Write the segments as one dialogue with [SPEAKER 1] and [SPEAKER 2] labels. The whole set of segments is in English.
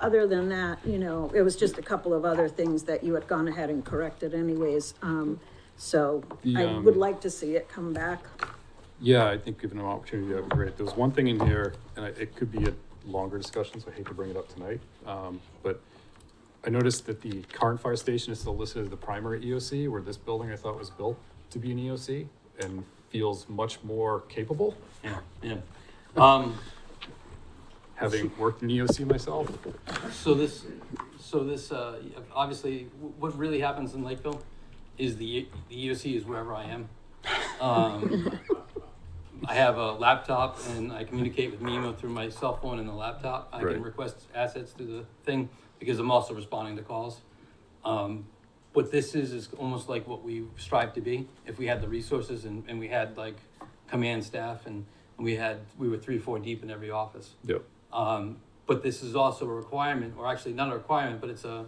[SPEAKER 1] other than that, you know, it was just a couple of other things that you had gone ahead and corrected anyways. Um, so
[SPEAKER 2] The,
[SPEAKER 1] I would
[SPEAKER 2] um,
[SPEAKER 1] like to see it come back.
[SPEAKER 2] Yeah, I think given an opportunity, that'd be great. There's one thing in here, and I- it could be a longer discussion, so I hate to bring it up tonight. Um, but I noticed that the current fire station is still listed as the primary EOC, where this building I thought was built to be an EOC and feels much more capable,
[SPEAKER 3] Yeah, yeah. Um,
[SPEAKER 2] having worked in EOC myself.
[SPEAKER 3] so this, so this, uh, obviously, wh- what really happens in Lakeville is the, the EOC is wherever I am. Um, I have a laptop and I communicate with Mimo through my cell phone and the laptop. I
[SPEAKER 2] Right.
[SPEAKER 3] can request assets through the thing because I'm also responding to calls. Um, what this is, is almost like what we strive to be. If we had the resources and, and we had like command staff and we had, we were three, four deep in every office.
[SPEAKER 2] Yep.
[SPEAKER 3] Um, but this is also a requirement, or actually not a requirement, but it's a,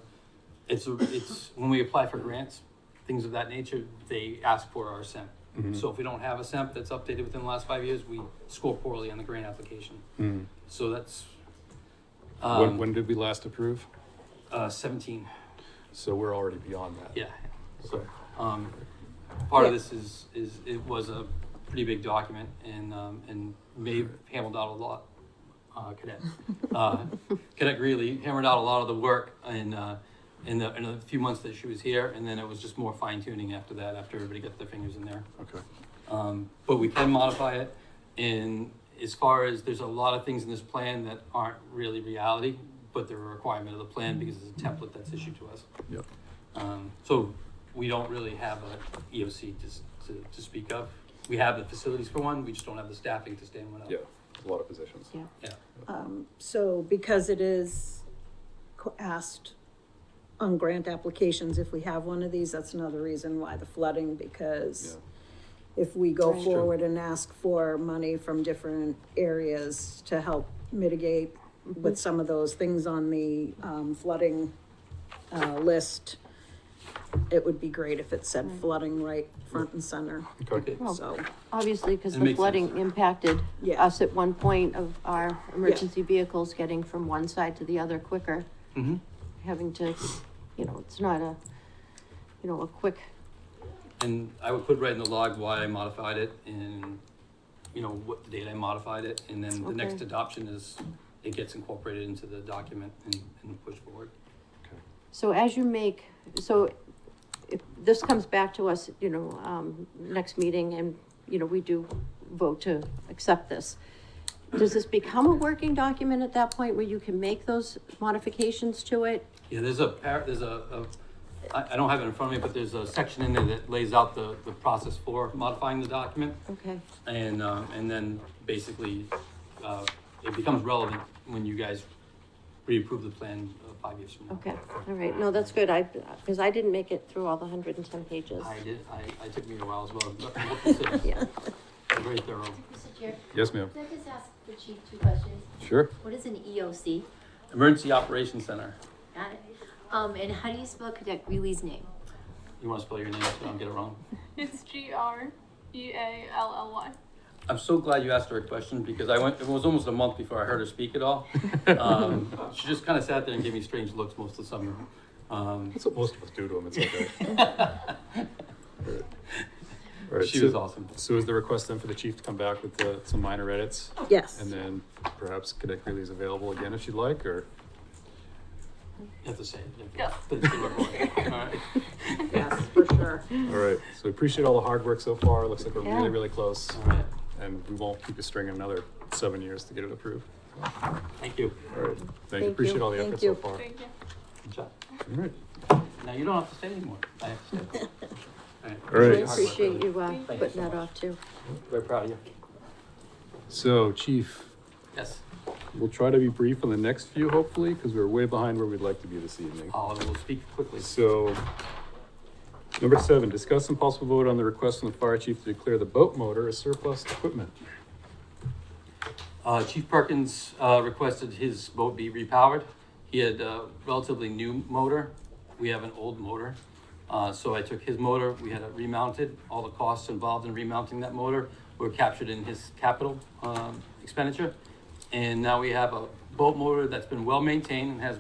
[SPEAKER 3] it's a, it's when we apply for grants, things of that nature, they ask for our SEMP. So if we don't have a SEMP that's updated within the last five years, we score poorly on the grant application.
[SPEAKER 2] Hmm.
[SPEAKER 3] So that's
[SPEAKER 2] When,
[SPEAKER 3] um,
[SPEAKER 2] when did we last approve?
[SPEAKER 3] uh, seventeen.
[SPEAKER 2] So we're already beyond that.
[SPEAKER 3] Yeah.
[SPEAKER 2] Okay.
[SPEAKER 3] Um, part of
[SPEAKER 1] Yeah.
[SPEAKER 3] this is is it was a pretty big document and um, and Maeve hammered out a lot. Uh, cadet, uh, cadet Greeley hammered out a lot of the work in uh, in the in a few months that she was here, and then it was just more fine tuning after that. After everybody got their fingers in there.
[SPEAKER 2] Okay.
[SPEAKER 3] Um, but we can modify it. And as far as there's a lot of things in this plan that aren't really reality, but they're a requirement of the plan because it's a template that's issued to us.
[SPEAKER 2] Yep.
[SPEAKER 3] Um, so we don't really have a EOC to, s- to, to speak of. We have the facilities for one, we just don't have the staffing to stand one up.
[SPEAKER 2] Yeah, a lot of positions.
[SPEAKER 4] Yeah.
[SPEAKER 3] Yeah.
[SPEAKER 1] So because it is qu- asked on grant applications, if we have one of these, that's another reason why the flooding,
[SPEAKER 2] Yeah.
[SPEAKER 1] because if we go
[SPEAKER 4] Right.
[SPEAKER 1] forward and ask for money from different areas to help mitigate with some of those things on the um, flooding uh, list, it would be great if it said flooding right front and center,
[SPEAKER 2] Okay.
[SPEAKER 3] Okay.
[SPEAKER 4] Well,
[SPEAKER 1] so,
[SPEAKER 4] Obviously, because
[SPEAKER 3] It
[SPEAKER 4] the
[SPEAKER 3] makes
[SPEAKER 4] flooding
[SPEAKER 3] sense.
[SPEAKER 4] impacted
[SPEAKER 1] Yeah.
[SPEAKER 4] us at one point of our emergency vehicles getting from one side to the other quicker,
[SPEAKER 3] Mm-hmm.
[SPEAKER 4] having to, you know, it's not a, you know, a quick,
[SPEAKER 3] And I would put right in the log why I modified it and, you know, what the date I modified it. And then the next
[SPEAKER 4] Okay.
[SPEAKER 3] adoption is, it gets incorporated into the document and, and pushed forward.
[SPEAKER 4] so as you make, so if this comes back to us, you know, um, next meeting and, you know, we do vote to accept this. Does this become a working document at that point where you can make those modifications to it?
[SPEAKER 3] Yeah, there's a par, there's a, a, I, I don't have it in front of me, but there's a section in there that lays out the, the process for modifying the document.
[SPEAKER 4] Okay,
[SPEAKER 3] And, um, and then basically, uh, it becomes relevant when you guys reapprove the plan uh, five years from now.
[SPEAKER 4] okay, all right, no, that's good, I, because I didn't make it through all the hundred and ten pages.
[SPEAKER 3] I did, I, I took me a while as well, but we'll consider it.
[SPEAKER 4] Yeah,
[SPEAKER 3] very thorough.
[SPEAKER 5] Mr. Chair,
[SPEAKER 2] Yes, ma'am.
[SPEAKER 5] could I just ask the chief two questions?
[SPEAKER 2] Sure.
[SPEAKER 5] What is an E EOC?
[SPEAKER 3] Emergency Operations Center,
[SPEAKER 5] Got it. Um, and how do you spell Cadet Greeley's name?
[SPEAKER 3] you wanna spell your name so I don't get it wrong?
[SPEAKER 6] It's G R E A L L Y.
[SPEAKER 3] I'm so glad you asked her a question because I went, it was almost a month before I heard her speak at all.
[SPEAKER 2] Uh,
[SPEAKER 3] Um, she just kinda sat there and gave me strange looks most of the summer. Um,
[SPEAKER 2] That's what most of us do to them. It's okay. All right,
[SPEAKER 3] she
[SPEAKER 2] so-
[SPEAKER 3] was awesome.
[SPEAKER 2] So is the request then for the chief to come back with the, some minor edits?
[SPEAKER 1] yes.
[SPEAKER 2] And then perhaps Cadet Greeley is available again if you'd like, or?
[SPEAKER 3] You have to say it.
[SPEAKER 6] Yes.
[SPEAKER 3] But it's good work. All right.
[SPEAKER 1] Yes, for sure.
[SPEAKER 2] All right, so we appreciate all the hard work so far. Looks like we're really,
[SPEAKER 4] Yeah.
[SPEAKER 2] really close.
[SPEAKER 3] All right.
[SPEAKER 2] And we won't keep you stringing another seven years to get it approved.
[SPEAKER 3] Thank you.
[SPEAKER 2] All right, thank
[SPEAKER 4] Thank
[SPEAKER 2] you.
[SPEAKER 4] you.
[SPEAKER 2] Appreciate all the
[SPEAKER 1] Thank
[SPEAKER 2] effort so
[SPEAKER 1] you.
[SPEAKER 2] far. All
[SPEAKER 6] Thank you.
[SPEAKER 3] Good job.
[SPEAKER 2] right.
[SPEAKER 3] Now you don't have to say anymore. I have to say. All right.
[SPEAKER 2] All
[SPEAKER 4] I
[SPEAKER 2] right.
[SPEAKER 4] appreciate you, uh,
[SPEAKER 6] Thank
[SPEAKER 3] you so
[SPEAKER 4] putting that
[SPEAKER 3] much.
[SPEAKER 4] off too.
[SPEAKER 3] Very proud of you.
[SPEAKER 2] So chief,
[SPEAKER 3] Yes.
[SPEAKER 2] we'll try to be brief on the next few hopefully, because we're way behind where we'd like to be this evening.
[SPEAKER 3] I Uh, will speak quickly.
[SPEAKER 2] So, number seven, discuss and possible vote on the request from the fire chief to declare the boat motor as surplus equipment.
[SPEAKER 3] Uh, Chief Perkins, uh, requested his boat be repowered. He had a relatively new motor. We have an old motor. Uh, so I took his motor, we had it remounted. All the costs involved in remounting that motor were captured in his capital, um, expenditure. And now we have a boat motor that's been well-maintained and has